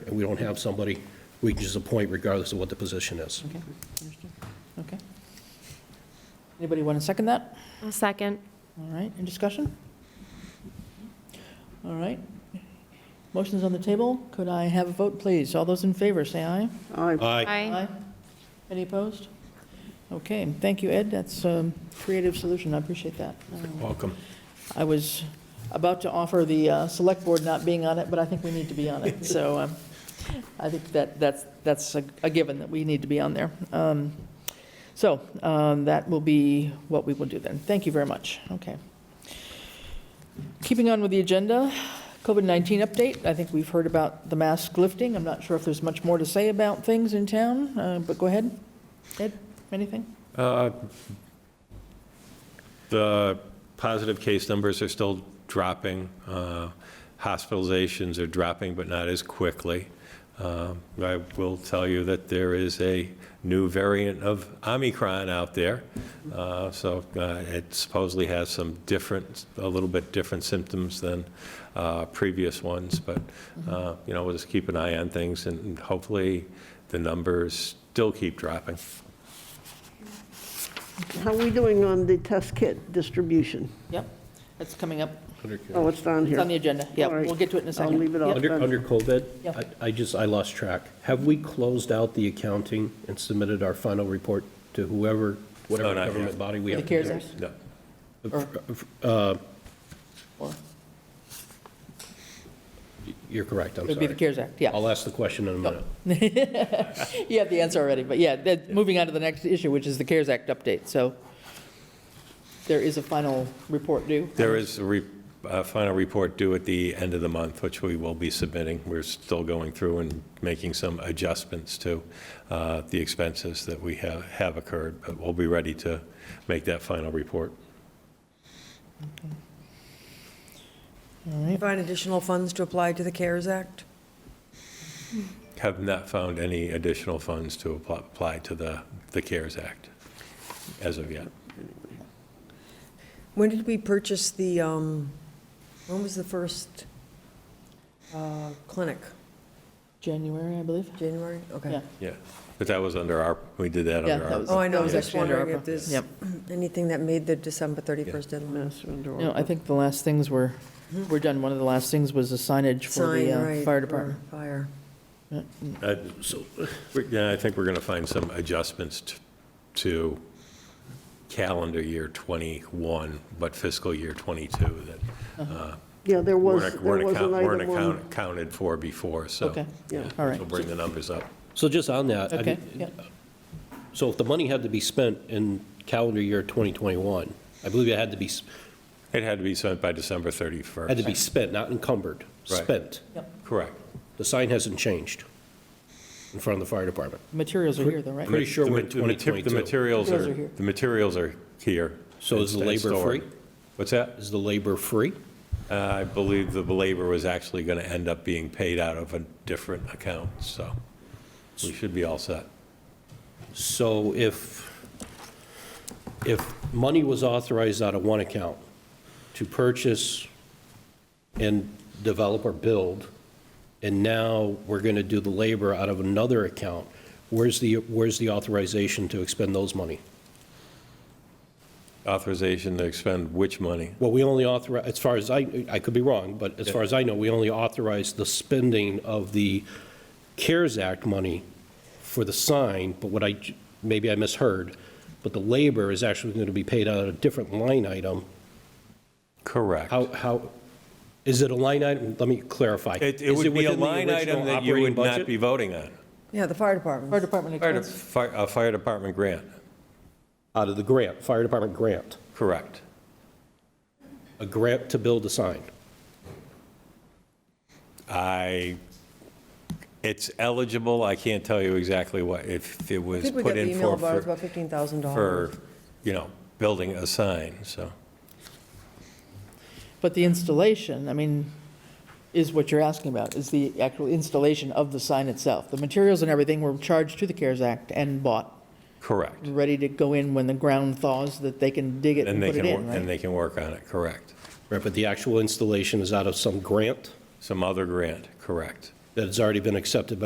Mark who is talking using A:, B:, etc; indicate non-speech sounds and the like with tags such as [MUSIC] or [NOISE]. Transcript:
A: and we don't have somebody, we can just appoint regardless of what the position is.
B: Okay, understood. Okay. Anybody want to second that?
C: I'll second.
B: All right, in discussion? All right. Motion's on the table. Could I have a vote, please? All those in favor, say aye.
D: Aye.
A: Aye.
B: Any opposed? Okay, thank you, Ed. That's a creative solution. I appreciate that. Um,
A: Welcome.
B: I was about to offer the uh, Select Board not being on it, but I think we need to be on it. [LAUGHS] So um, I think that, that's, that's a a given, that we need to be on there. Um, So um, that will be what we will do then. Thank you very much. Okay. Keeping on with the agenda, COVID-19 update. I think we've heard about the mask lifting. I'm not sure if there's much more to say about things in town, uh, but go ahead. Ed, anything?
E: Uh, The positive case numbers are still dropping. Uh, Hospitalizations are dropping, but not as quickly. Uh, I will tell you that there is a new variant of Omicron out there. Uh, So uh, it supposedly has some different, a little bit different symptoms than uh, previous ones. But, uh, you know, we'll just keep an eye on things and hopefully the numbers still keep dropping.
D: How are we doing on the test kit distribution?
B: Yep, that's coming up.
D: Oh, it's down
B: It's on the
D: here.
B: agenda. Yeah,
D: All right.
B: we'll get to it in a
D: I'll
B: second.
D: leave it
B: Yep.
D: off.
A: Under, under COVID,
B: Yeah.
A: I, I just, I lost track. Have we closed out the accounting and submitted our final report to whoever,
E: No,
A: whatever
E: not yet.
A: government body we
B: For
A: have?
B: the CARES Act?
E: No.
B: Or-
A: You're correct, I'm
B: It would be the
A: sorry.
B: CARES Act, yeah.
A: I'll ask the question in a minute.
B: [LAUGHS] You have the answer already, but yeah, that- moving on to the next issue, which is the CARES Act update. So there is a final report due.
E: There is a re- a final report due at the end of the month, which we will be submitting. We're still going through and making some adjustments to uh, the expenses that we have have occurred, but we'll be ready to make that final report.
F: Find additional funds to apply to the CARES Act?
E: Have not found any additional funds to apply- apply to the the CARES Act as of yet.
F: When did we purchase the, um, when was the first uh, clinic?
B: January, I believe.
F: January?
B: Yeah.
F: Okay.
E: Yeah, but that was under our, we did that
B: Yeah,
E: under
B: that
E: our.
B: was-
F: Oh, I know, I
B: That
F: was just
B: actually under
F: wondering
B: ARPA.
F: if there's
B: Yep.
F: anything that made the December 31st deadline.
D: Mass and or-
B: No, I think the last things were, were done. One of the last things was the Mm-hmm. signage for
F: Sign,
B: the uh,
F: right,
B: fire
F: for
B: department.
F: Fire.
E: Uh, So, we- yeah, I think we're going to find some adjustments t- to calendar year '21, but fiscal year '22 that uh,
D: Yeah, there was,
E: weren't
D: there
E: weren't
D: was
E: account-
D: an
E: weren't
D: item on.
E: account- accounted for before, so.
B: Okay,
D: Yeah.
B: all right.
E: We'll bring the numbers up.
A: So just on that, I
B: Okay,
A: did-
B: yeah.
A: So if the money had to be spent in calendar year 2021, I believe it had to be, s-
E: It had to be sent by December 31st.
A: had to be spent, not encumbered,
E: Right.
A: spent.
E: Correct.
A: The sign hasn't changed in front of the fire department.
B: Materials are here though, right?
A: Pretty sure
E: The
A: we're
E: ma-
A: in
E: the mater-
A: 2022.
E: The
B: Materials
E: materials are,
B: are here.
E: the materials are here.
A: So is the
E: It's- it's
A: labor free?
E: stored. What's that?
A: Is the labor free?
E: Uh, I believe the labor was actually going to end up being paid out of a different account, so we should be all set.
A: So if, if money was authorized out of one account to purchase and develop or build, and now we're going to do the labor out of another account, where's the, where's the authorization to expend those money?
E: Authorization to expend which money?
A: Well, we only authorize, as far as I, I could be wrong, but as far as I know, we only authorize the spending of the CARES Act money for the sign, but what I, j- maybe I misheard, but the labor is actually going to be paid out of a different line item.
E: Correct.
A: How, how, is it a line item? Let me clarify.
E: It, it
A: Is
E: would be a
A: within the
E: line
A: original
E: item that you
A: operating
E: would not
A: budget?
E: be voting on.
F: Yeah, the fire
B: Fire
F: department.
B: department
E: Fire de-
B: expense.
E: fi- A fire department grant,
A: Out of the grant, fire department grant,
E: correct.
A: a grant to build a sign.
E: I, it's eligible, I can't tell you exactly what, if it
F: I
E: was
F: think we got
E: put
F: the
E: in
F: email
E: for,
F: about it,
E: for,
F: about $15,000.
E: for, you know, building a sign, so.
B: But the installation, I mean, is what you're asking about, is the actual installation of the sign itself. The materials and everything were charged to the CARES Act and bought,
E: Correct.
F: Mm.
B: ready to go in when the ground thaws, that they can dig it and
E: And they
B: put it
E: can,
B: in,
E: wor- and
B: right?
E: they can work on it, correct.
A: Right, but the actual installation is out of some grant?
E: Some other grant, correct.
A: that has already been accepted by